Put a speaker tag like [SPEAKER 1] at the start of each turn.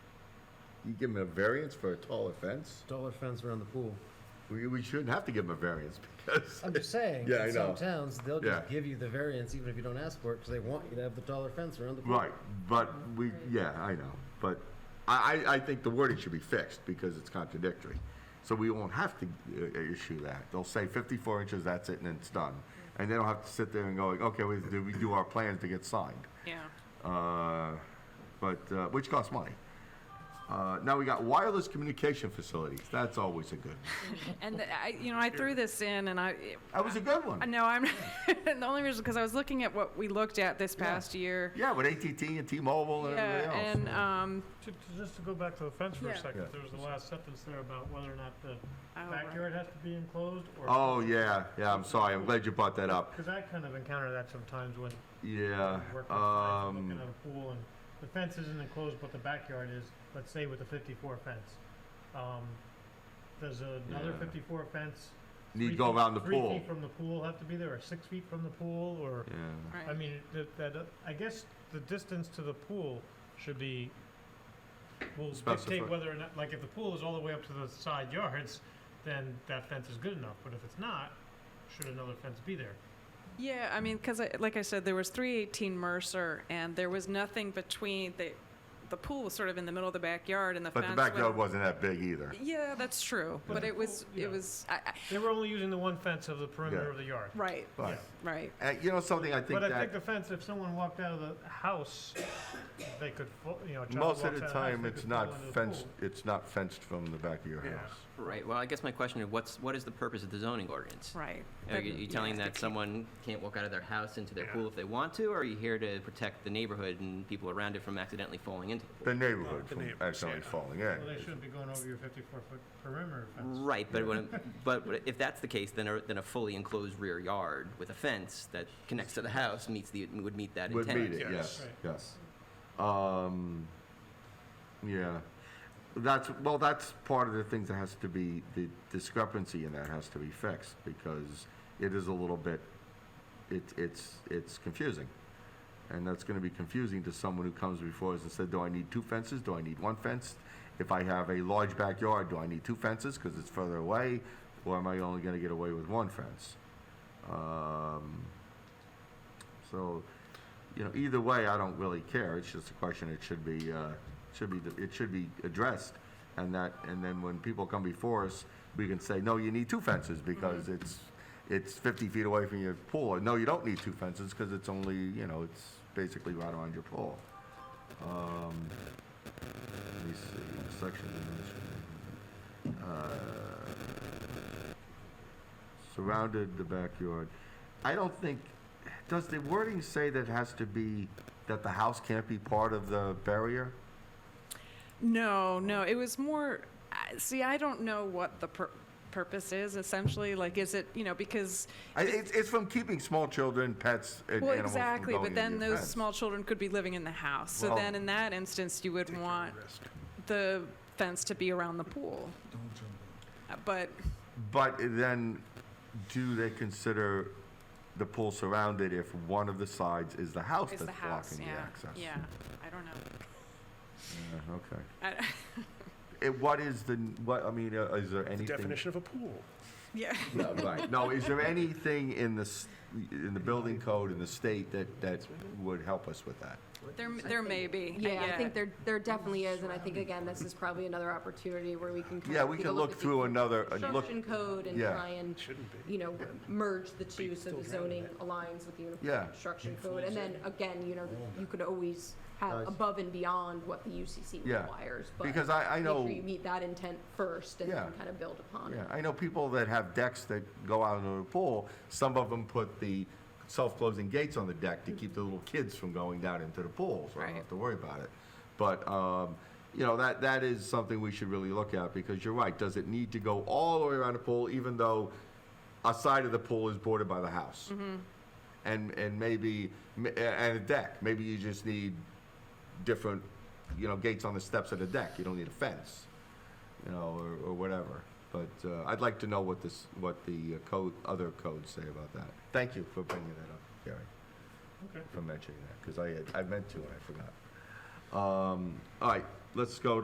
[SPEAKER 1] You give them a variance for a taller fence?
[SPEAKER 2] Dollar fence around the pool.
[SPEAKER 1] We, we shouldn't have to give them a variance because,
[SPEAKER 2] I'm just saying,
[SPEAKER 1] Yeah, I
[SPEAKER 2] in some
[SPEAKER 1] know.
[SPEAKER 2] towns, they'll
[SPEAKER 1] Yeah.
[SPEAKER 2] just give you the variance even if you don't ask for it, because they want you to have the dollar fence around the pool.
[SPEAKER 1] right, but we, yeah, I know. But I, I, I think the wording should be fixed because it's contradictory. So we won't have to uh, issue that. They'll say 54 inches, that's it, and it's done. And they don't have to sit there and going, okay, we, we do our plans to get signed.
[SPEAKER 3] Yeah.
[SPEAKER 1] uh, but uh, which costs money. Uh, now we got wireless communication facilities. That's always a good. One.
[SPEAKER 3] And the- I, you know, I threw this in and I,
[SPEAKER 1] That was a good
[SPEAKER 3] I
[SPEAKER 1] one.
[SPEAKER 3] know I'm, the only reason, because I was looking at what we looked at this past year.
[SPEAKER 1] Yeah, with ATT and T-Mobile and
[SPEAKER 3] Yeah,
[SPEAKER 1] everybody
[SPEAKER 3] and,
[SPEAKER 1] else.
[SPEAKER 3] um,
[SPEAKER 4] To- to- Just to go back to the fence for a
[SPEAKER 3] Yeah.
[SPEAKER 4] second,
[SPEAKER 1] Yeah.
[SPEAKER 4] there was the last sentence there about whether or not the
[SPEAKER 3] Oh, right.
[SPEAKER 4] backyard has to be enclosed or.
[SPEAKER 1] oh yeah, yeah. I'm sorry. I'm glad you brought that up.
[SPEAKER 4] Because I kind of encounter that sometimes when
[SPEAKER 1] Yeah.
[SPEAKER 4] I'm working, I'm looking
[SPEAKER 1] Um,
[SPEAKER 4] at a pool and the fence isn't enclosed, but the backyard is, let's say with a fifty-four fence. Um, does another
[SPEAKER 1] Yeah.
[SPEAKER 4] fifty-four fence?
[SPEAKER 1] need to
[SPEAKER 4] three
[SPEAKER 1] go
[SPEAKER 4] feet-
[SPEAKER 1] around the
[SPEAKER 4] three
[SPEAKER 1] pool.
[SPEAKER 4] feet from the pool have to be there, or six feet from the pool, or?
[SPEAKER 1] Yeah.
[SPEAKER 4] I
[SPEAKER 3] right.
[SPEAKER 4] mean, that, that, uh, I guess the distance to the pool should be, will
[SPEAKER 1] Specified.
[SPEAKER 4] dictate whether or not, like, if the pool is all the way up to the side yards, then that fence is good enough, but if it's not, should another fence be there?
[SPEAKER 3] Yeah, I mean, because like I said, there was 318 Mercer and there was nothing between the, the pool was sort of in the middle of the backyard and the
[SPEAKER 1] But
[SPEAKER 3] fence.
[SPEAKER 1] the
[SPEAKER 3] went-
[SPEAKER 1] backyard wasn't that big either.
[SPEAKER 3] Yeah, that's true. But
[SPEAKER 4] the
[SPEAKER 3] it was,
[SPEAKER 4] pool- yeah.
[SPEAKER 3] it was, I, I,
[SPEAKER 4] They were only using the one fence of the perimeter
[SPEAKER 1] Yeah.
[SPEAKER 4] of the yard.
[SPEAKER 3] right,
[SPEAKER 1] But
[SPEAKER 3] right.
[SPEAKER 1] uh, you know something, I think
[SPEAKER 4] But I
[SPEAKER 1] that
[SPEAKER 4] think the fence, if someone walked out of the house, they could, fo- you know, a child
[SPEAKER 1] most
[SPEAKER 4] walks out
[SPEAKER 1] of
[SPEAKER 4] of
[SPEAKER 1] the
[SPEAKER 4] the house,
[SPEAKER 1] time
[SPEAKER 4] they
[SPEAKER 1] it's
[SPEAKER 4] could fall
[SPEAKER 1] not
[SPEAKER 4] into the
[SPEAKER 1] fenced.
[SPEAKER 4] pool.
[SPEAKER 1] It's not fenced from the back of your
[SPEAKER 4] Yeah.
[SPEAKER 1] house.
[SPEAKER 5] Right, well, I guess my question is, what's, what is the purpose of the zoning ordinance?
[SPEAKER 3] Right.
[SPEAKER 5] Are
[SPEAKER 3] But-
[SPEAKER 5] you you telling
[SPEAKER 3] yeah.
[SPEAKER 5] that someone can't walk out of their house into their
[SPEAKER 4] Yeah.
[SPEAKER 5] pool if they want to, or are you here to protect the neighborhood and people around it from accidentally falling into the pool?
[SPEAKER 1] The neighborhood
[SPEAKER 6] the
[SPEAKER 1] from
[SPEAKER 6] neighbors,
[SPEAKER 1] accidentally
[SPEAKER 6] yeah.
[SPEAKER 1] falling in.
[SPEAKER 4] Well, they shouldn't be going over your fifty-four foot perimeter fence.
[SPEAKER 5] Right, but when, but if that's the case, then a, then a fully enclosed rear yard with a fence that connects to the house meets the, would meet that
[SPEAKER 1] Would
[SPEAKER 5] intent.
[SPEAKER 1] meet it, yes,
[SPEAKER 6] Yes.
[SPEAKER 1] yes. Um, yeah, that's, well, that's part of the things that has to be, the discrepancy in that has to be fixed, because it is a little bit, it, it's, it's confusing. And that's gonna be confusing to someone who comes before us and said, do I need two fences, do I need one fence? If I have a large backyard, do I need two fences, cause it's further away, or am I only gonna get away with one fence? Um, so, you know, either way, I don't really care. It's just a question. It should be, uh, should be, it should be addressed, and that, and then when people come before us, we can say, no, you need two fences because it's, it's 50 feet away from your pool, or no, you don't need two fences because it's only, you know, it's basically right around your pool. Um, let me see, section. Uh, surrounded the backyard. I don't think, does the wording say that it has to be, that the house can't be part of the barrier?
[SPEAKER 3] No, no, it was more, I- see, I don't know what the pur- purpose is essentially. Like, is it, you know, because,
[SPEAKER 1] I, it's, it's from keeping small children, pets, and
[SPEAKER 3] well,
[SPEAKER 1] animals from
[SPEAKER 3] exactly,
[SPEAKER 1] going
[SPEAKER 3] but
[SPEAKER 1] in
[SPEAKER 3] then
[SPEAKER 1] your
[SPEAKER 3] those
[SPEAKER 1] fence.
[SPEAKER 3] small children could be living in the house. So
[SPEAKER 1] Well-
[SPEAKER 3] then in that instance, you would want the fence to be around the pool. Uh, But,
[SPEAKER 1] But then, do they consider the pool surrounded if one of the sides is the house
[SPEAKER 3] is
[SPEAKER 1] that's
[SPEAKER 3] the house,
[SPEAKER 1] blocking
[SPEAKER 3] yeah,
[SPEAKER 1] the access?
[SPEAKER 3] yeah, I don't know.
[SPEAKER 1] Yeah, okay.
[SPEAKER 3] I-
[SPEAKER 1] It, what is the what? I mean, uh, is there anything?
[SPEAKER 6] Definition of a pool.
[SPEAKER 3] Yeah,
[SPEAKER 1] No, right. No, is there anything in the s- in the building code in the state that that would help us with that?
[SPEAKER 3] there, there may be.
[SPEAKER 7] Yeah, I think there, there definitely is, and I think, again, this is probably another opportunity where we can kind of.
[SPEAKER 1] Yeah, we
[SPEAKER 7] take a
[SPEAKER 1] can look
[SPEAKER 7] at the
[SPEAKER 1] through another, uh, look,
[SPEAKER 7] Construction code and
[SPEAKER 1] Yeah.
[SPEAKER 7] try and, you know, merge the two so the zoning aligns with the
[SPEAKER 1] Yeah.
[SPEAKER 7] uniform construction code. And then, again, you know, you could always have
[SPEAKER 1] Guys.
[SPEAKER 7] above and beyond what the UCC
[SPEAKER 1] Yeah,
[SPEAKER 7] requires. but
[SPEAKER 1] because I, I know,
[SPEAKER 7] Make sure you meet that intent first and
[SPEAKER 1] Yeah.
[SPEAKER 7] then kind of build upon
[SPEAKER 1] yeah,
[SPEAKER 7] it.
[SPEAKER 1] I know people that have decks that go out into the pool, some of them put the self-closing gates on the deck to keep the little kids from going down into the pool, so I don't
[SPEAKER 3] Right.
[SPEAKER 1] have to worry about it. But, um, you know, that, that is something we should really look at, because you're right, does it need to go all the way around the pool, even though a side of the pool is bordered by the house?
[SPEAKER 7] Mm-hmm.
[SPEAKER 1] And, and maybe, m- and a deck, maybe you just need different, you know, gates on the steps of the deck, you don't need a fence. you know, or, or whatever. But uh, I'd like to know what this, what the uh, code, other codes say about that. Thank you for bringing that up, Gary,
[SPEAKER 4] Okay.
[SPEAKER 1] for mentioning that, because I, had- I meant to and I forgot. Um, all right, let's go to